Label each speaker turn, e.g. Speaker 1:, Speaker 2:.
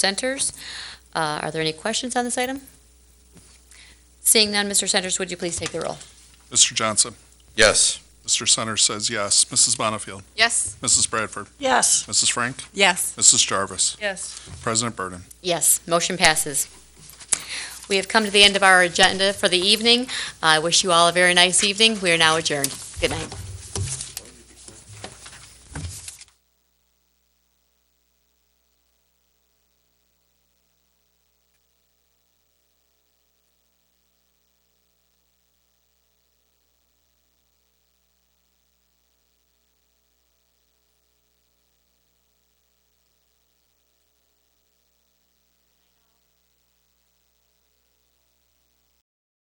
Speaker 1: Centers. Uh, Are there any questions on this item? Seeing none, Mr. Centers, would you please take the roll?
Speaker 2: Mr. Johnson.
Speaker 3: Yes.
Speaker 2: Mr. Centers says yes. Mrs. Bonnefield.
Speaker 4: Yes.
Speaker 2: Mrs. Bradford.
Speaker 5: Yes.
Speaker 2: Mrs. Frank.
Speaker 4: Yes.
Speaker 2: Mrs. Jarvis.
Speaker 4: Yes.
Speaker 2: President Burden.
Speaker 1: Yes, motion passes. We have come to the end of our agenda for the evening. I wish you all a very nice evening. We are now adjourned. Good night.